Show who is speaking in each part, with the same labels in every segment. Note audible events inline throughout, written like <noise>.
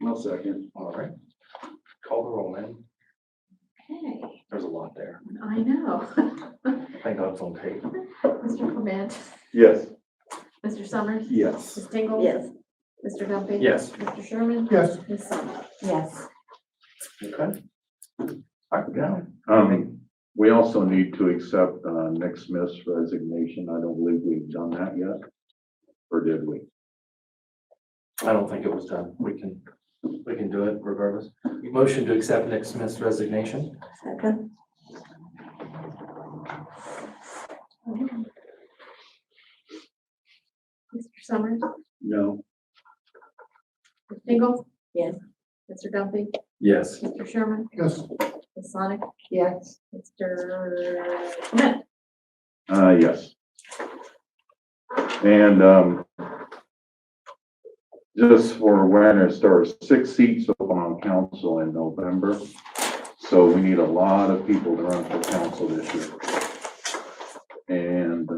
Speaker 1: No second.
Speaker 2: All right. Call the roll, man.
Speaker 3: Okay,
Speaker 2: There's a lot there.
Speaker 3: I know. <laughs>
Speaker 2: I think that's on tape.
Speaker 3: Mr. Clement,
Speaker 1: Yes.
Speaker 3: Mr. Summers,
Speaker 1: Yes.
Speaker 3: Ms. Dingle.
Speaker 4: Yes.
Speaker 3: Mr. Duffy.
Speaker 2: Yes.
Speaker 3: Mr. Sherman.
Speaker 1: Yes.
Speaker 3: Ms. Summers.
Speaker 4: Yes.
Speaker 2: Okay. All right, now,
Speaker 1: Um, we also need to accept, uh, Nick Smith's resignation. I don't believe we've done that yet. Or did we?
Speaker 2: I don't think it was done. We can, we can do it regardless. Motion to accept Nick Smith's resignation.
Speaker 4: Second.
Speaker 3: Mr. Summers,
Speaker 1: No.
Speaker 3: Ms. Dingle.
Speaker 4: Yes.
Speaker 3: Mr. Duffy,
Speaker 2: Yes.
Speaker 3: Mr. Sherman,
Speaker 1: Yes.
Speaker 3: Ms. Sonic. Yes. Mr. Clement,
Speaker 1: Uh, yes. And, um, just for awareness, there are six seats open on council in November. So we need a lot of people to run for council this year. And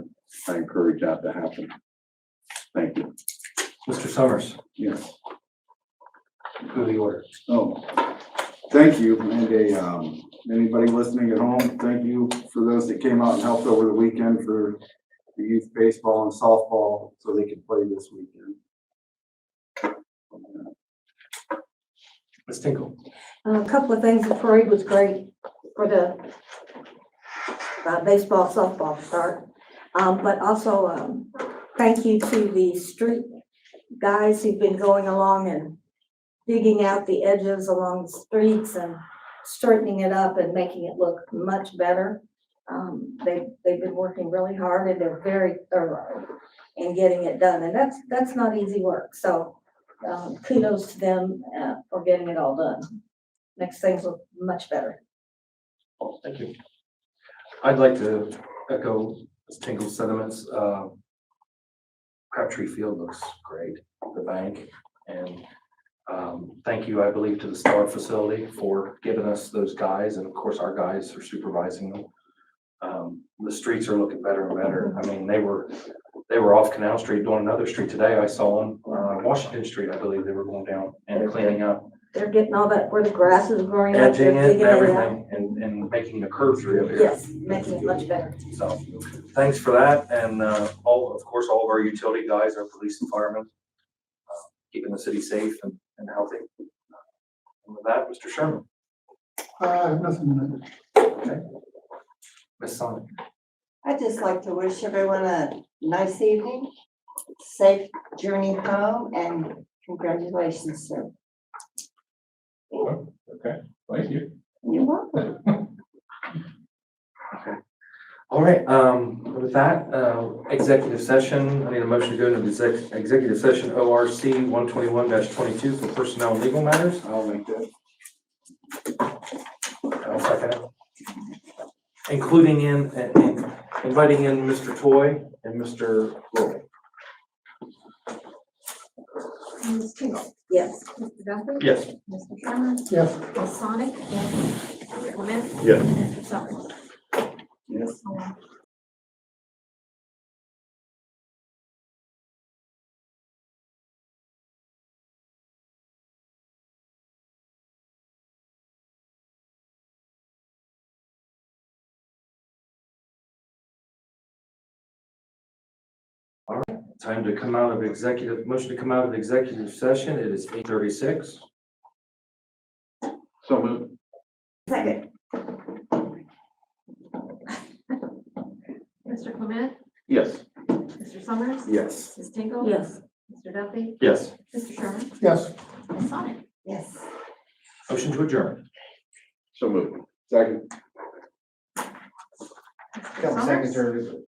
Speaker 1: I encourage that to happen. Thank you.
Speaker 2: Mr. Summers,
Speaker 5: Yes,
Speaker 2: who the order?
Speaker 5: oh, thank you, and a, um, anybody listening at home, thank you for those that came out and helped over the weekend for the youth baseball and softball, so they could play this weekend.
Speaker 2: Ms. Tinkle.
Speaker 4: Uh, A couple of things, the parade was great for the uh, baseball, softball start. Um, but also, um, thank you to the street guys who've been going along and digging out the edges along the streets and straightening it up and making it look much better. Um, they, they've been working really hard and they're very thorough in getting it done. And that's, that's not easy work, so, um, kudos to them, uh, for getting it all done makes things look much better.
Speaker 2: Thank you. I'd like to echo Ms. Tinkle's sentiments. Uh, Crabtree Field looks great, the bank, and um, thank you, I believe, to the Star Facility for giving us those guys, and of course, our guys are supervising them. Um, The streets are looking better and better. I mean, they were, they were off Canal Street doing another street today. I saw them, uh, Washington Street, I believe, they were going down and cleaning up
Speaker 4: They're getting all that, where the grass is growing up, they're
Speaker 2: edging it, and
Speaker 4: digging it out.
Speaker 2: everything, and, and making the curves real here.
Speaker 4: Yes, making it much better.
Speaker 2: So, thanks for that, and, uh, all, of course, all of our utility guys, our police and firemen, uh, keeping the city safe and, and healthy. Uh, And With that, Mr. Sherman,
Speaker 5: Uh, nothing.
Speaker 2: Ms. Sonic,
Speaker 6: I'd just like to wish everyone a nice evening, safe journey home, and congratulations, sir.
Speaker 7: Okay, thank you.
Speaker 6: You're welcome.
Speaker 2: all right, um, with that, uh, executive session, I need a motion to go into the exec- executive session, O R C one twenty-one twenty-two for personnel and legal matters.
Speaker 5: I'll make that.
Speaker 2: I'll second it. Including in, and- and inviting in Mr. Toy and Mr. Roy.
Speaker 3: Ms. Dingle,
Speaker 4: Yes.
Speaker 3: Mr. Duffy.
Speaker 2: Yes.
Speaker 3: Mr. Sherman.
Speaker 5: Yes.
Speaker 3: Ms. Sonic. Yes. Mr. Clement.
Speaker 1: Yes.
Speaker 3: Mr. Summers.
Speaker 5: Yes.
Speaker 2: Time to come out of executive, motion to come out of executive session. It is eight thirty-six.
Speaker 1: So moved.
Speaker 4: Second.
Speaker 3: Mr. Clement,
Speaker 1: Yes.
Speaker 3: Mr. Summers.
Speaker 5: Yes.
Speaker 3: Ms. Dingle.
Speaker 4: Yes.
Speaker 3: Mr. Duffy,
Speaker 2: Yes.
Speaker 3: Mr. Sherman,
Speaker 5: Yes.
Speaker 3: Ms. Sonic.
Speaker 6: Yes.
Speaker 2: Motion to adjourn.
Speaker 1: So moved.
Speaker 5: Second.
Speaker 3: Mr. Summers.